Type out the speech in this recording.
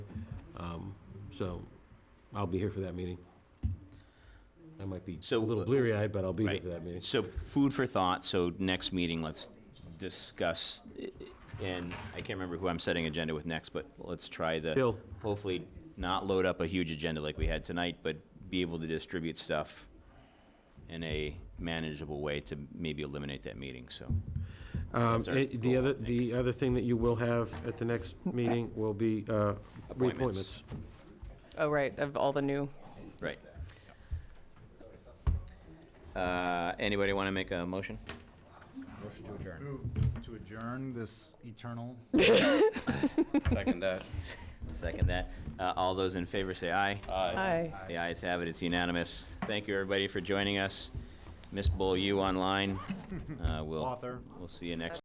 So I'll be here for that meeting. I might be a So- little bleary-eyed, but I'll be here Right. for that meeting. So food for thought, so next meeting, let's discuss, i- i- and I can't remember who I'm setting agenda with next, but let's try the. Bill. Hopefully not load up a huge agenda like we had tonight, but be able to distribute stuff in a manageable way to maybe eliminate that meeting, so. Um, That's our eh, The goal, other, I think. the other thing that you will have at the next meeting will be uh, reappointments. Appointments. Oh, right, of all the new, Right. Uh, Anybody want to make a motion? Move to adjourn this eternal Second that. Second that. Uh, All those in favor say aye. aye. The ayes have it, it's unanimous. Thank you, everybody, for joining us. Miss Bull, you online. Uh, We'll, author. we'll see you next.